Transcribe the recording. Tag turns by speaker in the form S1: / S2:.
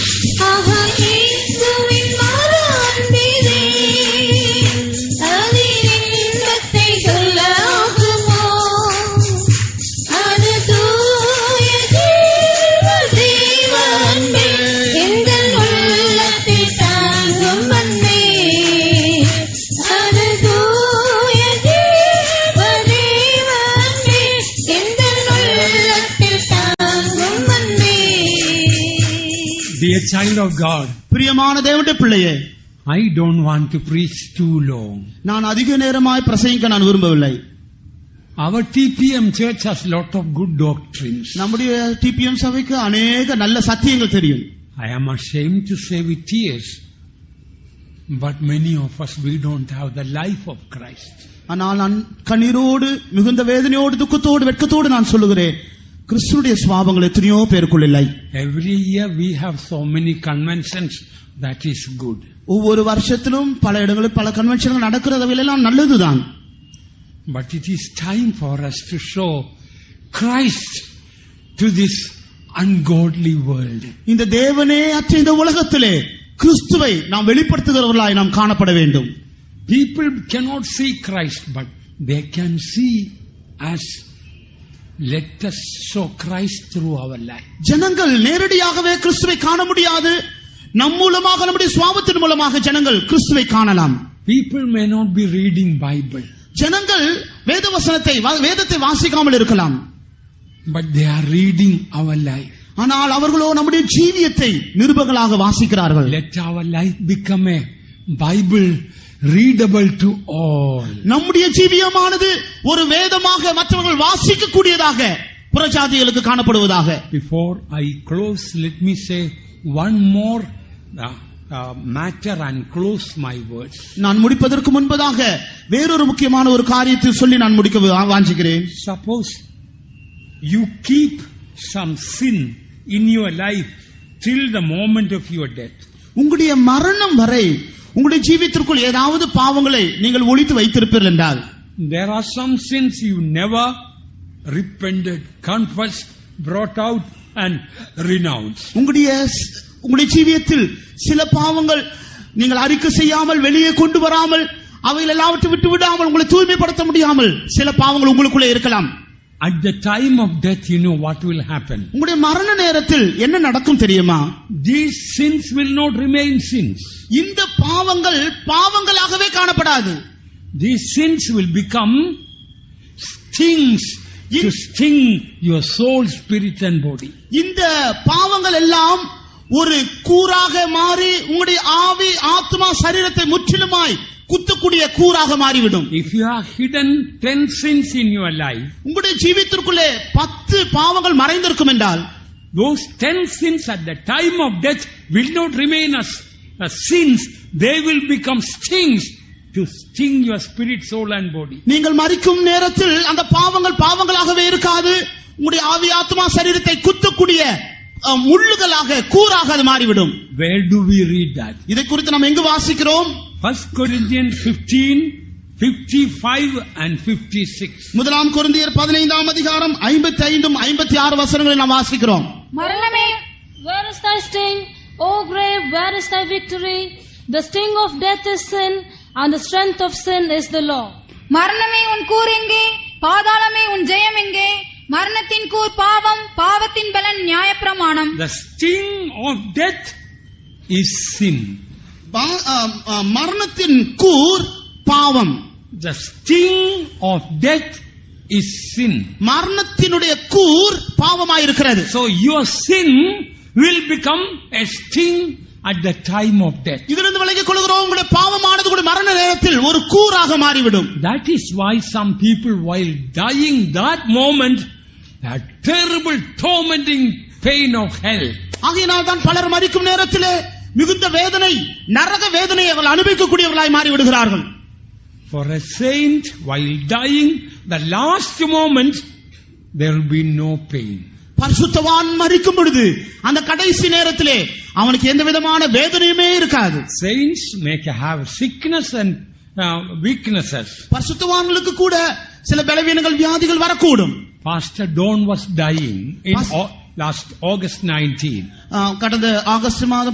S1: a child of God,
S2: பிரியமான தேவனுடைய பிள்ளையே
S1: I don't want to preach too long.
S2: நான் அதிக நேரமாய் பிரசங்கிக்க நான் விரும்பவில்லை
S1: Our TPM church has lot of good doctrines.
S2: நம்முடைய டிபிஎம் சபைக்கு அநேக நல்ல சத்தியங்கள் தெரியும்
S1: I am ashamed to say with tears, but many of us, we don't have the life of Christ.
S2: ஆனால் நான் கண்ணீரோடு மிகுந்த வேதனையோடு துக்கத்தோடு வெட்கத்தோடு நான் சொல்லுகிறேன் கிறிஸ்துடைய சுவாபங்கள் எத்தனையோ பேருக்குள் இல்லை
S1: Every year we have so many conventions, that is good.
S2: ஒவ்வொரு வருஷத்திலும் பல இடங்களில் பல கன்வென்ஷன்கள் நடக்கிறதவையெல்லாம் நல்லதுதான்
S1: But it is time for us to show Christ to this ungodly world.
S2: இந்த தேவனே அற்ற இந்த உலகத்திலே கிறிஸ்துவை நாம் வெளிப்படுத்துகிறவர்களாய் நாம் காணப்பட வேண்டும்
S1: People cannot see Christ, but they can see us. Let us show Christ through our life.
S2: ஜனங்கள் நேரடியாகவே கிறிஸ்துவை காண முடியாது நம் மூலமாக நம்முடைய சுவாபத்தின் மூலமாக ஜனங்கள் கிறிஸ்துவை காணலாம்
S1: People may not be reading Bible,
S2: ஜனங்கள் வேத வசனத்தை வா- வேதத்தை வாசிக்காமல் இருக்கலாம்
S1: but they are reading our life.
S2: ஆனால் அவர்களோ நம்முடைய ஜீவியத்தை நிருபர்களாக வாசிக்கிறார்கள்
S1: Let our life become a Bible readable to all.
S2: நம்முடைய ஜீவியமானது ஒரு வேதமாக மற்றவர்கள் வாசிக்க கூடியதாக புறஜாதிகளுக்கு காணப்படுவதாக
S1: Before I close, let me say one more uh, uh, matter and close my words.
S2: நான் முடிப்பதற்கு முன்பதாக வேறொரு முக்கியமான ஒரு காரியத்தை சொல்லி நான் முடிக்க வா- வாஞ்சிக்கிறேன்
S1: Suppose you keep some sin in your life till the moment of your death.
S2: உங்களுடைய மரணம் வரை உங்களுடைய ஜீவியத்திற்குள் ஏதாவது பாவங்களை நீங்கள் ஒழித்து வைத்திருப்பீர்கள் என்றால்
S1: There are some sins you never repented, confessed, brought out, and renounced.
S2: உங்களுடைய ஸ்- உங்களுடைய ஜீவியத்தில் சில பாவங்கள் நீங்கள் அறிக்கை செய்யாமல் வெளியே கொண்டு வராமல் அவைகள் எல்லாவற்றை விட்டு விடாமல் உங்களை தூய்மைப்படுத்த முடியாமல் சில பாவங்கள் உங்களுக்குள்ளே இருக்கலாம்
S1: At the time of death, you know what will happen.
S2: உங்களுடைய மரண நேரத்தில் என்ன நடக்கும் தெரியுமா
S1: These sins will not remain sins.
S2: இந்த பாவங்கள் பாவங்களாகவே காணப்படாது
S1: These sins will become stings to sting your soul, spirit, and body.
S2: இந்த பாவங்கள் எல்லாம் ஒரு கூறாக மாறி உங்களுடைய ஆவி ஆத்மா சரீரத்தை முற்றிலுமாய் குத்தக்கூடிய கூறாக மாறிவிடும்
S1: If you have hidden ten sins in your life,
S2: உங்களுடைய ஜீவித்திற்குள்ளே பத்து பாவங்கள் மறைந்திருக்கும் என்றால்
S1: Those ten sins at the time of death will not remain as, as sins. They will become stings to sting your spirit, soul and body.
S2: நீங்கள் மறிக்கும் நேரத்தில் அந்த பாவங்கள் பாவங்களாகவே இருக்காது உங்களுடைய ஆவி ஆத்மா சரீரத்தை குத்தக்கூடிய அஹ், முள்ளுகளாக கூறாக அது மாறிவிடும்
S1: Where do we read that?
S2: இதை குறித்து நாம் எங்கு வாசிக்கிறோம்
S1: 1 Corinthians 15, 55 and 56.
S2: முதலாம் கொரிந்தியர் பதினைந்தாம் அதிகாரம் ஐம்பத்தி ஐந்தும் ஐம்பத்தி ஆறு வசனங்களை நாம் வாசிக்கிறோம்
S3: மரணமே where is thy sting o grave where is thy victory the sting of death is sin and the strength of sin is the law
S4: மரணமே உன் கூர் எங்கே பாதாளமே உன் ஜெயம் எங்கே மரணத்தின் கூர் பாவம் பாவத்தின் பலன் நியாயப்பிரமாணம்
S1: The sting of death is sin.
S2: பா- அஹ், அஹ், மரணத்தின் கூர் பாவம்
S1: The sting of death is sin.
S2: மரணத்தினுடைய கூர் பாவமாயிருக்கிறது
S1: So your sin will become a sting at the time of death.
S2: இதிலிருந்து விலகிக் கொள்கிறோம் உங்களுடைய பாவமானது கூட மரண நேரத்தில் ஒரு கூறாக மாறிவிடும்
S1: That is why some people, while dying that moment, that terrible tormenting pain of hell.
S2: ஆகையினால் தான் பலர் மறிக்கும் நேரத்திலே மிகுந்த வேதனை நரக வேதனையை அவர்கள் அனுபவிக்கக்கூடியவர்களாய் மாறி விடுகிறார்கள்
S1: For a saint, while dying, the last moment, there will be no pain.
S2: பரிசுத்தவான் மறிக்கும் பொழுது அந்த கடைசி நேரத்திலே அவனுக்கு எந்த விதமான வேதனையுமே இருக்காது
S1: Saints may have sickness and uh, weaknesses.
S2: பரிசுத்தவான்களுக்கு கூட சில பலவீனங்கள் வியாதிகள் வரக்கூடும்
S1: Pastor Don was dying in
S2: Pas-
S1: Au- last August 19.
S2: ஆஹ் கடந்த ஆகஸ்ட் மாதம்